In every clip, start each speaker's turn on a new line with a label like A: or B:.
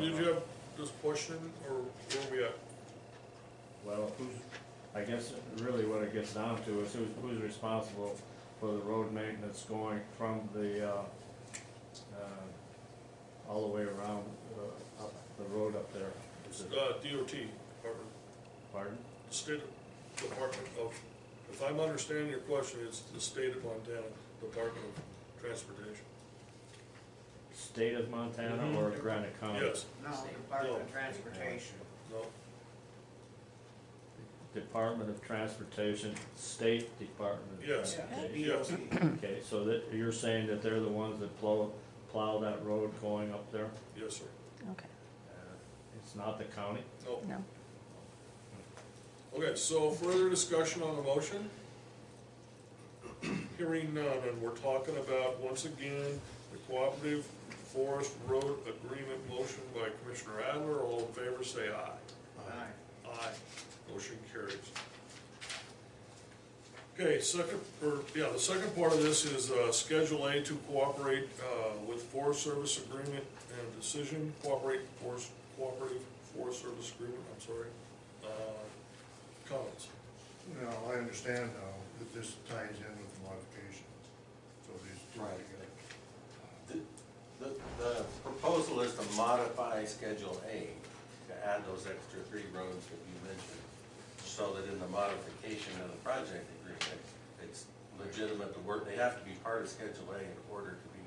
A: Did you have this question, or where we at?
B: Well, who's, I guess really what it gets down to is who's, who's responsible for the road maintenance going from the, uh, uh, all the way around, uh, up the road up there? Is it-
A: Uh, DOT, Department,
B: Pardon?
A: the State Department of, if I'm understanding your question, it's the State of Montana Department of Transportation.
B: State of Montana or Granite County?
A: Mm-hmm. Yes,
C: No, Department of Transportation.
A: no,
B: Department of Transportation, State Department of
A: Yes.
B: Transportation.
A: Yes.
C: DOT.
B: Okay, so that, you're saying that they're the ones that plow, plow that road going up there? Uh,
A: yes, sir,
D: Okay,
B: It's not the county?
A: no.
D: no.
A: Okay, so further discussion on the motion? Hearing none, and we're talking about, once again, the Cooperative Forest Road Agreement motion by Commissioner Adler, all in favor, say aye.
C: Aye.
A: Aye. Motion carries. Okay, second, or, yeah, the second part of this is, uh, Schedule A to cooperate, uh, with Forest Service Agreement and decision, cooperate forest, cooperative Forest Service Agreement, I'm sorry. Uh, Comments?
E: No, I understand now that this ties in with the modification, so these two are
F: Right.
E: together.
F: The, the- the proposal is to modify Schedule A, to add those extra three roads that you mentioned, so that in the modification of the project agreement, it's legitimate to work, they have to be part of Schedule A in order to be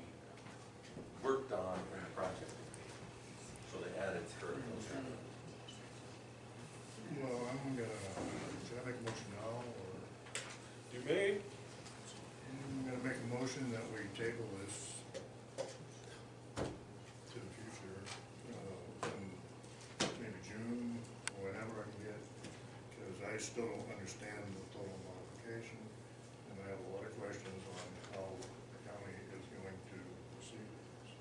F: worked on in the project agreement. So they added third those roads.
E: Well, I'm gonna, should I make a motion now, or,
A: You may,
E: I'm gonna make a motion that we table this to the future, uh, in maybe June, or whenever I can get, because I still don't understand the total modification, and I have a lot of questions on how the county is going to proceed with this.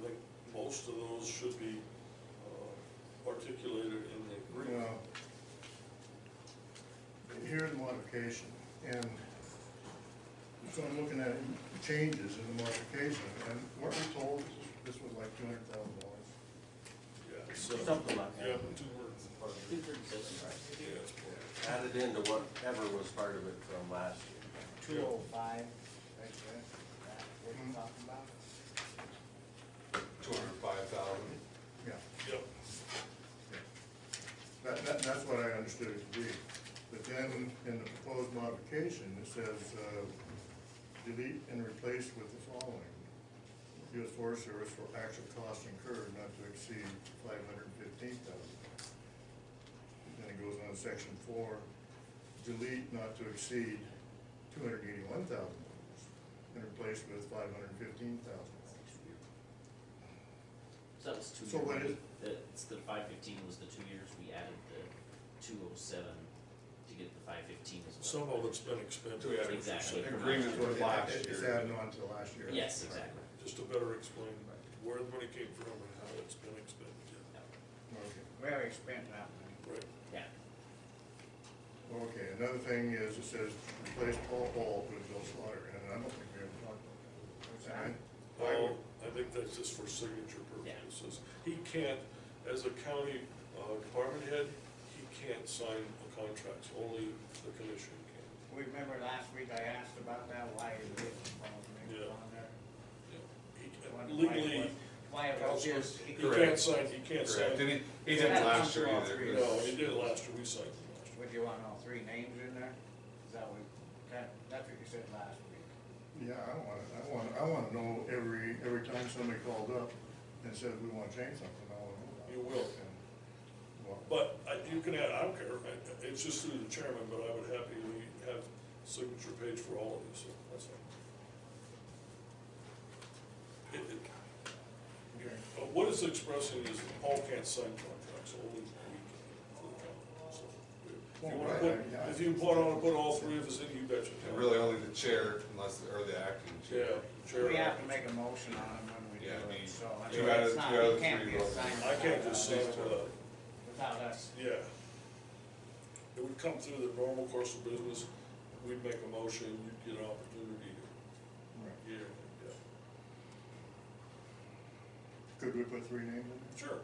A: I think most of those should be uh, articulated in the agreement.
E: Well, Here's the modification, and so I'm looking at changes in the modification, and what we told, this was like two hundred thousand dollars.
A: Yeah, so-
F: Something like that.
A: Yeah, two words. Yeah, it's part of it.
F: Added into whatever was part of it from last year.
C: Two oh five, right there, that what you're talking about?
G: two hundred five thousand.
E: Yeah,
A: Yep,
E: yeah. That, that, that's what I understood it to be. But then, in the proposed modification, it says, uh, delete and replace with the following. U.S. Forest Service for actual costs incurred not to exceed five hundred and fifteen thousand. Then it goes on to section four, delete not to exceed two hundred and eighty-one thousand dollars and replace with five hundred and fifteen thousand dollars.
H: So that was two.
E: So
H: years.
E: what is-
H: The, it's the five fifteen was the two years, we added the two oh seven to get the five fifteen as well.
A: some of it's been expended.
G: We had
H: Exactly.
G: an agreement with last year.
E: It's adding on to last year.
H: Yes, exactly.
A: Just to better explain where the money came from and how it's been expended, yeah.
E: Okay.
C: We already spent that money.
A: right?
H: Yeah,
E: Okay, another thing is, it says replace Paul Hall with Bill Slaughter, and I don't think we ever talked about that. And I- I
A: Well, I
E: would-
A: think that's just for signature
H: Yeah.
A: purposes. He can't, as a county uh, department head, he can't sign the contracts, only the commission can.
C: Remember last week I asked about that, why it was on there,
A: Yeah.
C: on there?
A: Yeah.
C: Wondered
A: He-
C: why it
A: Legally,
C: was- Why it was just.
A: he can't
G: Correct.
A: sign, he can't sign.
G: Correct, and he, he didn't last year either.
A: No, he did last year, we signed him last year.
C: Would you want all three names in there? Is that what, that, that's what you said last week?
E: Yeah, I want, I want, I want to know every, every time somebody called up and said, we want to change something, I want to know. about
A: You
E: it.
A: will.
E: And, well,
A: But I, you can add, I don't care, I- it's just through the chairman, but I would happily have signature page for all of these, so that's fine. It- it-
E: Okay.
A: uh, What it's expressing is that Paul can't sign contracts, only we can. for the county, so. If you wanna put, if you wanna put all three of us in, you betcha.
G: And really only the chair, unless, or the acting
A: Yeah,
G: chair.
A: chair.
C: We have to make a motion on them when we do
G: Yeah, I mean,
C: it, so. I
G: two
C: mean,
G: out
C: it's
G: of-
C: not-
G: two out of
C: it can't
G: three
C: be
G: votes.
C: assigned
A: I can't just sign
C: without us-
A: without,
C: Without us.
A: yeah. It would come through the normal course of business, we'd make a motion, you'd get an opportunity to
E: right.
A: Yeah, yeah.
E: Could we put three names in?
A: Sure.